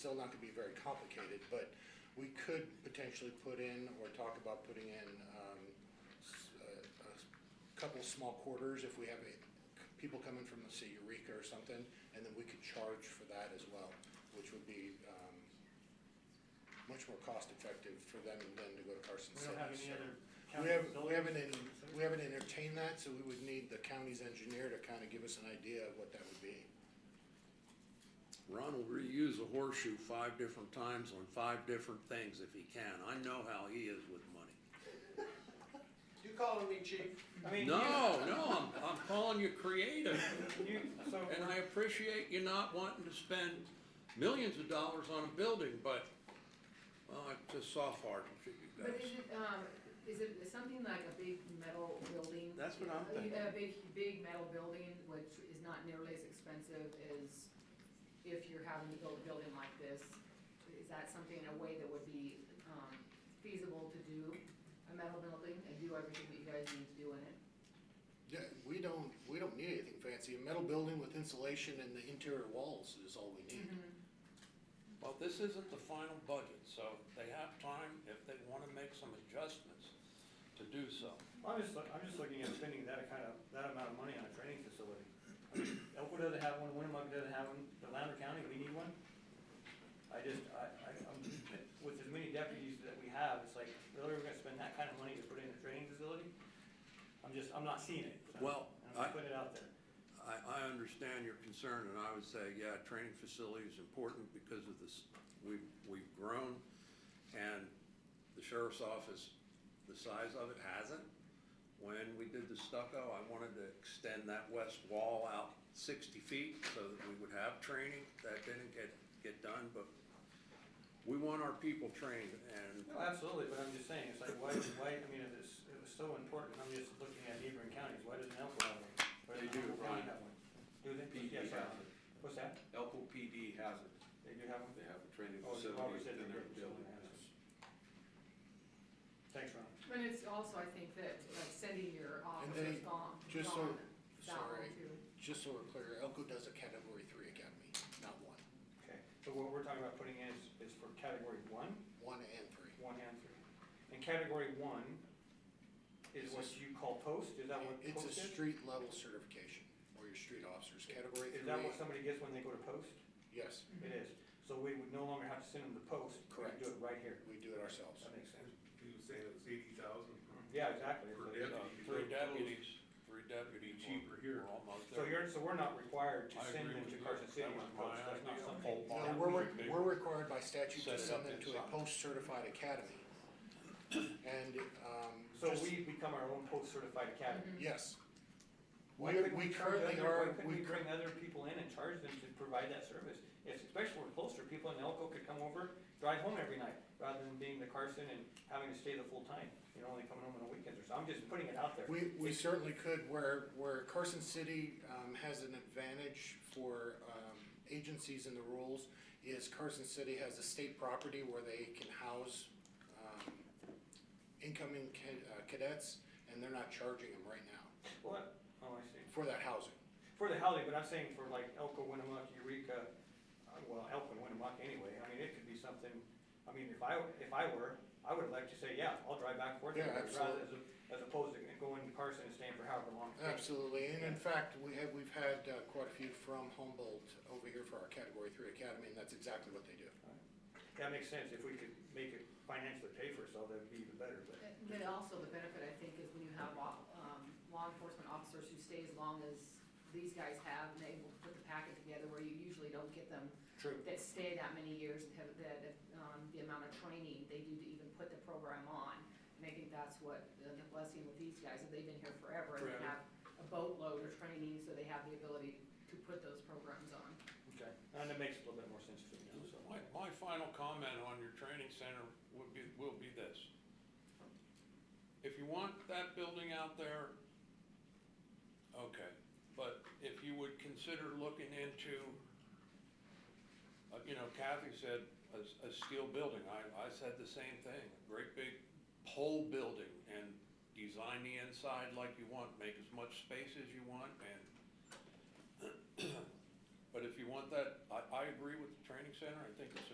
still not gonna be very complicated, but we could potentially put in or talk about putting in, um, s- uh, a, a couple small quarters if we have a, people coming from, let's say Eureka or something, and then we could charge for that as well, which would be, um, much more cost effective for them than to go to Carson We City. don't have any so- other we county haven't, we buildings? haven't, en- we haven't entertained that, so we would need the county's engineer to kind of give us an idea of what that would be. Ron will reuse a horseshoe five different times on five different things if he can. I know how he is with money. You calling me chief? I mean, No, no, I'm, I'm calling you creative. you, you, so, And I appreciate you not wanting to spend millions of dollars on a building, but, well, it's just soft hearted to you guys. But is it, um, is it something like a big metal building? That's what I'm A- thinking. A big, big metal building, which is not nearly as expensive as if you're having to build a building like this. Is that something, a way that would be, um, feasible to do, a metal building, and do everything that you guys need to do in it? Yeah, we don't, we don't need anything fancy, a metal building with insulation and the interior walls is all we need. Well, this isn't the final budget, so they have time if they wanna make some adjustments to do so. I'm just, look- I'm just looking at spending that kind of, that amount of money on a training facility. I mean, Elkwood doesn't have one, Winnemucca doesn't have one, Lander County, we need one. I just, I, I, I'm, with as many deputies that we have, it's like, really, we're gonna spend that kind of money to put in a training facility? I'm just, I'm not seeing it. so Well, I'm I- just putting it out there. I, I understand your concern, and I would say, yeah, training facility is important because of this, we've, we've grown, and the sheriff's office, the size of it hasn't. When we did the stucco, I wanted to extend that west wall out sixty feet so that we would have training, that didn't get, get done, but we want our people trained, and No, absolutely, but I'm just saying, it's like, why, why, I mean, if it's, it was so important, I'm just looking at neighboring counties, why doesn't Elko have one? Why They doesn't do, Humboldt County Ryan. have one? Do they? PD Yes, sir. has it. What's that? Elko PD has it. They do have one? They have a training Oh, you facility probably said they within their did. building. Thanks, Ron. But it's also, I think, that uh, sending your they- officers gone, just so- gone, Mm-hmm. that sorry. one too. Just so we're clear, Elko does a category three academy, not one, Okay, so what we're talking about putting in is, is for category one, one and three. one and three. And category one is what you call post, is that what It's a post is? street level certification, or your street officers, category Is that three, what somebody gets when they go to post? yes, It is, so we would no longer have to send them to post, we Correct. could do it right here, we do it ourselves. that makes sense. You were saying it was eighty thousand? Yeah, exactly. It's Per like, deputy. uh, you three go close. deputies, three deputies. Be cheaper here. We're almost So there. you're, so we're not required to I send agree them to with you. Carson City That on was my post, that's not idea. something. Whole No, barn. we're, re- we're required by statute to Set it send up them to a inside. post-certified academy. And, um. So just- we become our own post certified academy. Yes. Why We- couldn't we charge currently other- are- Why couldn't we we cur- bring other people in and charge them to provide that service? If, especially we're closer, people in Elko could come over, drive home every night, rather than being the Carson and having to stay the full time, you know, only coming home on the weekends or so, I'm just putting it out there. We, we certainly could, where, where Carson City, um, has an advantage for, um, agencies in the rules, is Carson City has a state property where they can house, um, incoming ca- uh, cadets, and they're not charging them right now What, oh, I see, for that housing. for the housing, but I'm saying for like Elko, Winnemucca, Eureka, uh, well, Elko and Winnemucca anyway, I mean, it could be something, I mean, if I, if I were, I would like to say, yeah, I'll drive back and forth, Yeah, every day," rather absolutely. as, a- as opposed to going to Carson and staying for however long. it takes. Absolutely, and in fact, we have, we've had uh, quite a few from Humboldt over here for our Category Three Academy, and that's exactly what they do. That makes sense, if we could make it financially pay for itself, that'd be even better, but. But also the benefit, I think, is when you have law, um, law enforcement officers who stay as long as these guys have and able to put the packet together where you usually don't get them True. that stay that many years and have the, the, um, the amount of training they do to even put the program on. And I think that's what uh, the the blessing with these guys, that they've been here forever and they Forever. have a boatload of training, so they have the ability to put those programs on. Okay, and that makes a little bit more sense to me now, so. My, my final comment on your training center would be, will be this. If you want that building out there, okay, but if you would consider looking into, uh, you know, Kathy said, a, s- a steel building, I, I said the same thing, a great big pole building and design the inside like you want, make as much space as you want and but if you want that, I, I agree with the training center, I think it's